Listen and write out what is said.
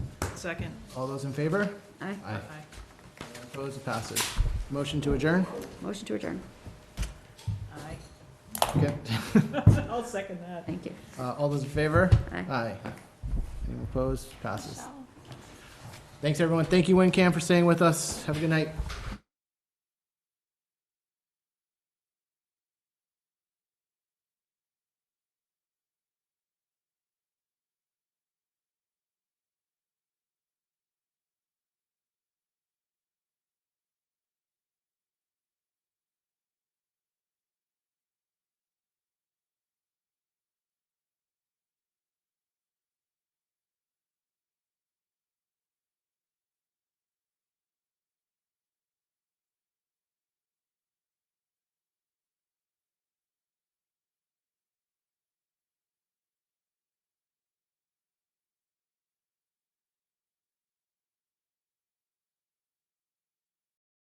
Second. All those in favor? Aye. Aye. Opposed, it passes. Motion to adjourn? Motion to adjourn. Aye. Okay. I'll second that. Thank you. Uh, All those in favor? Aye. Aye. Anyone opposed? Passes. Thanks, everyone. Thank you, WinCam, for staying with us. Have a good night.